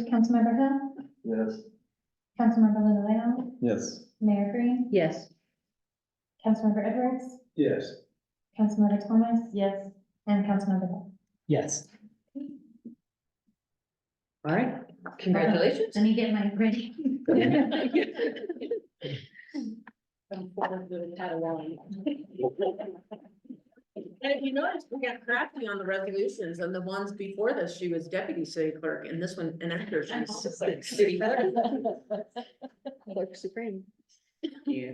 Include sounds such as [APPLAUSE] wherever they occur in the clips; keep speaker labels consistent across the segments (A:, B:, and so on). A: Councilmember Hill,
B: Yes.
A: Councilmember Lilloye,
B: Yes.
A: Mayor Green,
C: Yes.
A: Councilmember Edwards,
B: Yes.
A: Councilmember Thomas, yes, and Councilmember Hill.
D: Yes.
C: All right,
A: [LAUGHS]
C: congratulations.
A: Let me get my ready.
C: And if you notice, we got crafty on the resolutions and the ones before this, she was deputy city clerk and this one, and after she was assistant city clerk. [LAUGHS]
E: Clerk Supreme.
C: Yeah.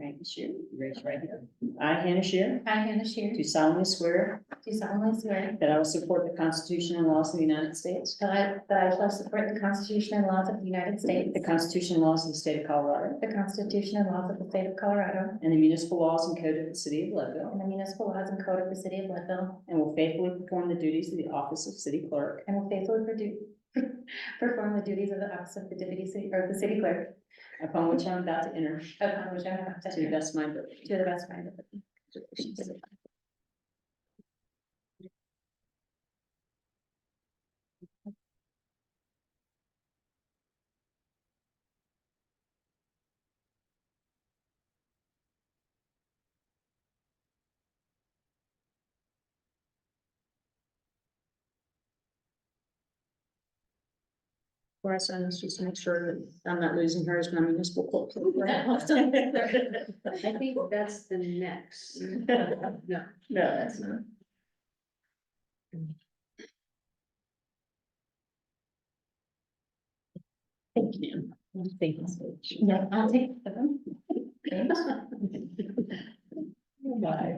E: Right, Shear, raise right hand. I, Hannah Shear,
A: I, Hannah Shear,
E: do solemnly swear
A: do solemnly swear
E: that I will support the Constitution and laws of the United States,
A: that I- that I shall support the Constitution and laws of the United States,
E: the Constitution and laws of the state of Colorado,
A: the Constitution and laws of the state of Colorado,
E: and the municipal laws and code of the city of Leadville,
A: and the municipal laws and code of the city of Leadville,
E: and will faithfully perform the duties of the office of city clerk
A: and will faithfully produ- [LAUGHS] perform the duties of the office of the deputy city, or the city clerk,
E: upon which I am about to enter
A: upon which I am about to
E: to the
A: enter,
E: best of my ability.
A: to the best of my ability.
E: Before I sign this, just make sure that I'm not losing her as my municipal clerk. [LAUGHS]
C: I think that's the next. No.
E: No, that's not. Thank you. Thank you. so much.
A: Yeah, I'll take them.
E: Bye.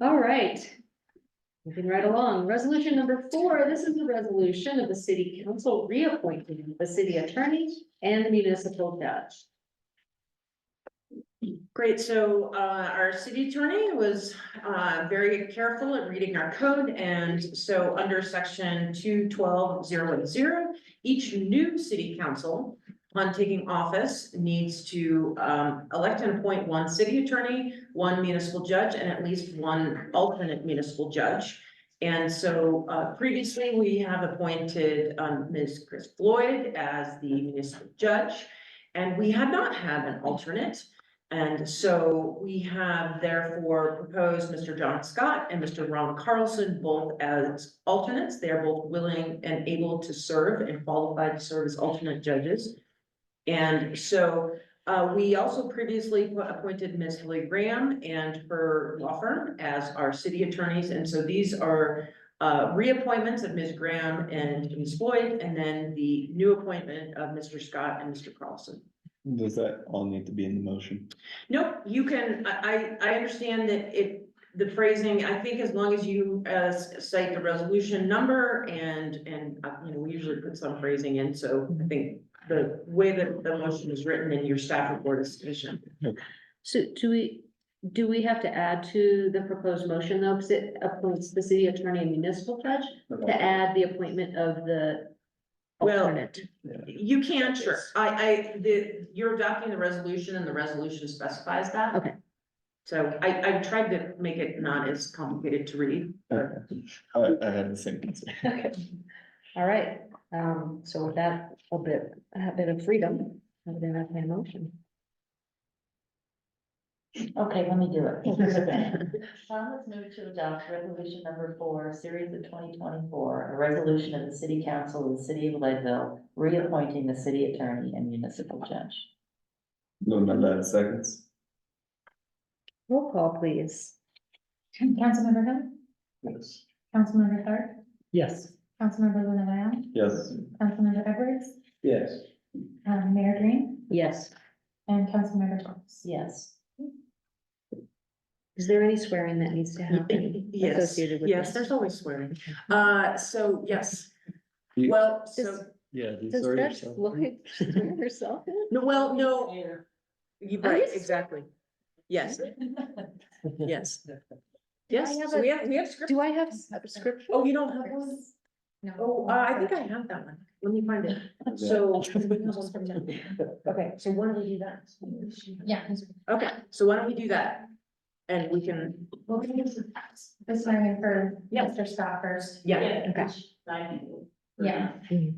C: All right. Moving right along, resolution number four, this is the resolution of the city council reappointing the city attorney and the municipal judge.
F: Great, so uh our city attorney was uh very careful at reading our code, and so under section two twelve zero one zero. Each new city council on taking office needs to um elect and appoint one city attorney, one municipal judge, and at least one alternate municipal judge. And so uh previously, we have appointed um Ms. Chris Floyd as the municipal judge. And we had not had an alternate. And so we have therefore proposed Mr. John Scott and Mr. Ron Carlson both as alternates. They are both willing and able to serve and qualified to serve as alternate judges. And so uh, we also previously appointed Ms. Haley Graham and her law firm as our city attorneys. And so these are uh, reappointments of Ms. Graham and Ms. Floyd, and then the new appointment of Mr. Scott and Mr. Carlson.
B: Does that all need to be in the motion?
F: Nope, you can, I, I, I understand that it, the phrasing, I think as long as you, uh, cite the resolution number and, and, uh, you know, we usually put some phrasing in, so I think the way that the motion is written in your staff report is sufficient.
C: So do we, do we have to add to the proposed motion though, because it appoints the city attorney and municipal judge to add the appointment of the
F: Well,
C: alternate?
F: You can, sure. I, I, the, you're adopting the resolution and the resolution specifies that.
C: Okay.
F: So I, I tried to make it not as complicated to read.
B: Okay. I, I had the same concern.
C: Okay, all right, um, so with that, a bit, a bit of freedom, I would entertain a motion.
G: Okay, let me do
C: [LAUGHS]
G: it. Tom has moved to adopt resolution number four, series of twenty twenty-four, a resolution of the city council of the city of Leadville, reappointing the city attorney and municipal judge.
B: Moving on that seconds.
C: Roll call, please.
A: Councilmember Hill,
B: Yes.
A: Councilmember Clark,
D: Yes.
A: Councilmember Lilloye,
B: Yes.
A: Councilmember Edwards,
B: Yes.
A: um, Mayor Green,
C: Yes,
A: and Councilmember Thomas.
G: Yes.
C: is there any swearing that needs to happen?
F: [LAUGHS] Yes,
C: associated with
F: yes,
C: this?
F: there's always swearing. Uh, so, yes.
B: You-
F: Well, so.
C: Does-
B: Yeah.
C: Does Judge Floyd swear herself in?
F: No, well, no, you,
C: Are you
F: right,
C: s-
F: exactly.
C: [LAUGHS]
F: Yes, yes,
C: I
F: yes,
C: have
F: so
C: a-
F: we have, we have script.
C: Do I have s- a script?
F: Oh, you don't have one? Oh, uh, I think I have that one. Let me find it.
C: [LAUGHS]
F: So. Okay, so why don't we do that?
A: Yeah.
F: Okay, so why don't we do that? And we can,
A: Well, we need to pass this one for
F: Yeah.
A: Mr. Scott first.
F: yeah.
C: Okay.
A: Yeah.